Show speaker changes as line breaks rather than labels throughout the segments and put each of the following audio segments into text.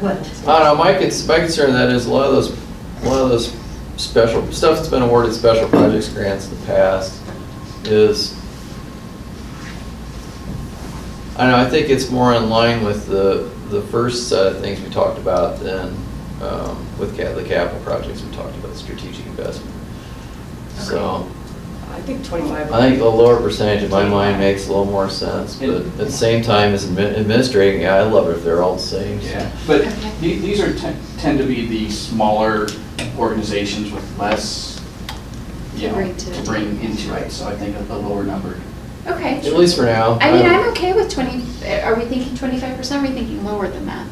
what?
I don't know, my cons- my concern that is a lot of those, a lot of those special, stuff that's been awarded special projects grants in the past is, I know, I think it's more in line with the, the first set of things we talked about than um, with ca- the capital projects we talked about, strategic investment. So,
I think 25.
I think a lower percentage in my mind makes a little more sense, but at the same time as admi- administrating, yeah, I love it if they're all the same. so.
Yeah, but the- these are, ten- tend to be the smaller organizations with less, you
To
know,
bring to the
to bring into it, so I think a a lower number.
Okay.
At least for now.
I mean, I'm okay with twenty, are we thinking twenty-five percent, are we thinking lower than that?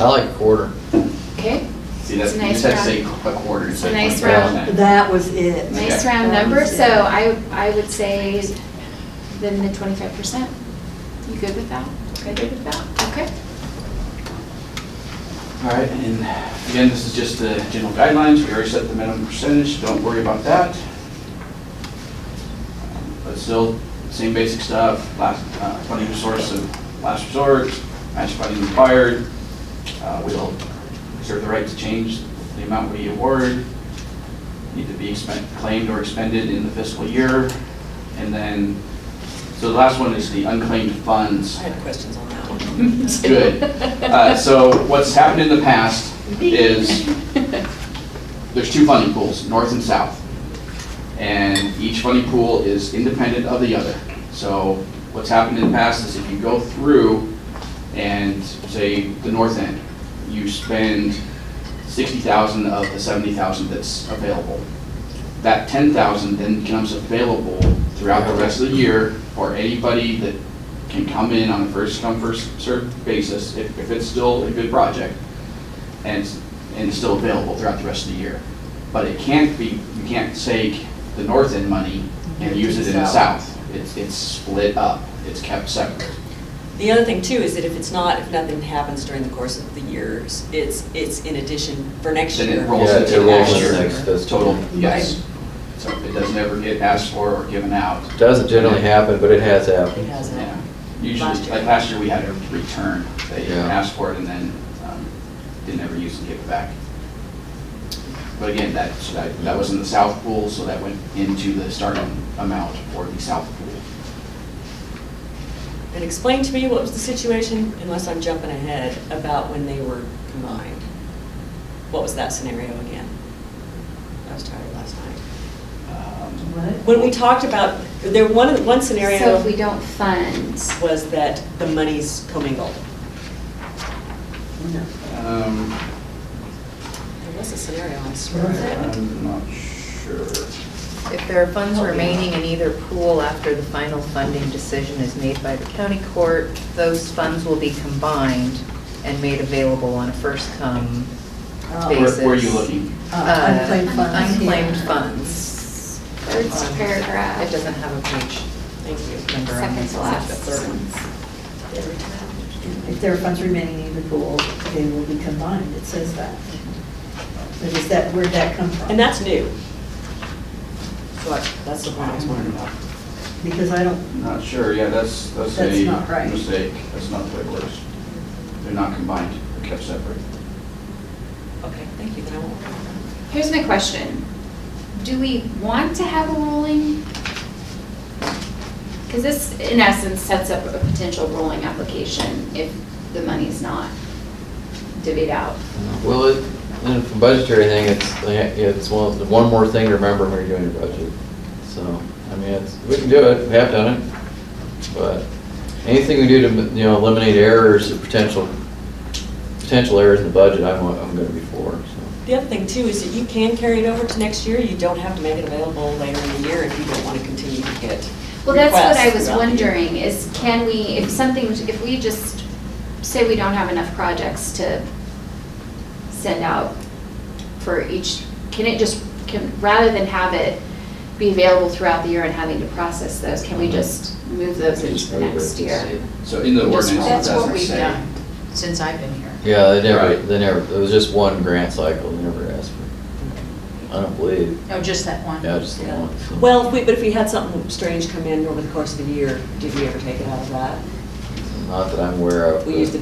I like quarter.
Okay,
See, that's,
It's a
you
nice
said say
round.
a quarter.
It's
so
a nice
25%.
round.
That was it.
nice
Okay.
round
That
number,
was it.
so I, I would say then the twenty-five percent. You good with that?
Okay.
Good with that, okay.
All right, and again, this is just the general guidelines, we already set the minimum percentage, don't worry about that. But still, same basic stuff, last, uh, funding source of last resort, match funding required. Uh, We'll reserve the right to change the amount we award, need to be expend- claimed or expended in the fiscal year. And then, so the last one is the unclaimed funds.
I had questions on that one.
Good. Uh, So what's happened in the past is, there's two funding pools, north and south. And each funding pool is independent of the other. So what's happened in the past is if you go through and say the north end, you spend 60,000 of the 70,000 that's available. That 10,000 then becomes available throughout the rest of the year for anybody that can come in on a first come, first served basis, if, if it's still a good project, and, it's- and it's still available throughout the rest of the year. But it can't be, you can't take the north end money and use it in the south. It's, it's split up, it's kept separate.
The other thing too is that if it's not, if nothing happens during the course of the years, it's, it's in addition for next
Then
year.
it rolls
Yeah, it
into
rolls
next
into
year.
next fiscal
Total,
year.
yes. So it doesn't ever get asked for or given out.
Doesn't generally happen, but it has
It
happened.
hasn't.
Yeah. Usually,
Last year.
like last year, we had a return. They
Yeah.
asked for it and then um, didn't ever use and give it back. But again, that, so that that was in the south pool, so that went into the starting amount for the south pool.
And explain to me what was the situation, unless I'm jumping ahead, about when they were combined. What was that scenario again? I was tired last night.
Um,
When we talked about, there, one, one scenario.
So if we don't fund,
was that the money's commingled.
um,
There was a scenario, I swear.
I'm not sure.
If there are funds remaining in either pool after the final funding decision is made by the county court, those funds will be combined and made available on a first-come
Oh.
Where
basis.
where are you looking?
Uh, Unclaimed
Uh,
funds.
Unclaimed
yeah.
funds. Um,
Third paragraph.
It doesn't have a page
Thank you.
number on
second
it.
to last.
Third one.
If there are funds remaining in either pool, they will be combined, it says that. So does that, where'd that come from?
And that's new. So I- that's the one I was wondering about.
Because I don't,
Not sure, yeah, that's, that's
That's
a
not right.
mistake. That's not the way it works. They're not combined, they're kept separate.
Okay, thank you, then I won't.
Here's my question. Do we want to have a rolling? Because this, in essence, sets up a potential rolling application if the money's not divvied out.
Well, it, and for budgetary thing, it's, it's one, the one more thing to remember when you're doing your budget. So, I mean, it's, we can do it, we have done it, but anything we do to, you know, eliminate errors or potential, potential errors in the budget, I'm, I'm gonna be for, so.
The other thing too is that you can carry it over to next year. You don't have to make it available later in the year if you don't want to continue to get.
Well, that's what I
requests
was
throughout the year.
wondering, is can we, if something, if we just say we don't have enough projects to send out for each, can it just, can, rather than have it be available throughout the year and having to process those, can we just move those into the next year?
So in the
Just-
ordinance, it
that's what
doesn't
we've
say.
done.
Since I've been here.
Yeah, they never,
Right.
they never, it was just one grant cycle, they never asked for, I don't believe,
Oh, just that one?
yeah, just the
Yeah.
one. so.
Well, if we, but if we had something strange come in over the course of the year, did we ever take it out of that?
Not that I'm aware of.
We
but-
used the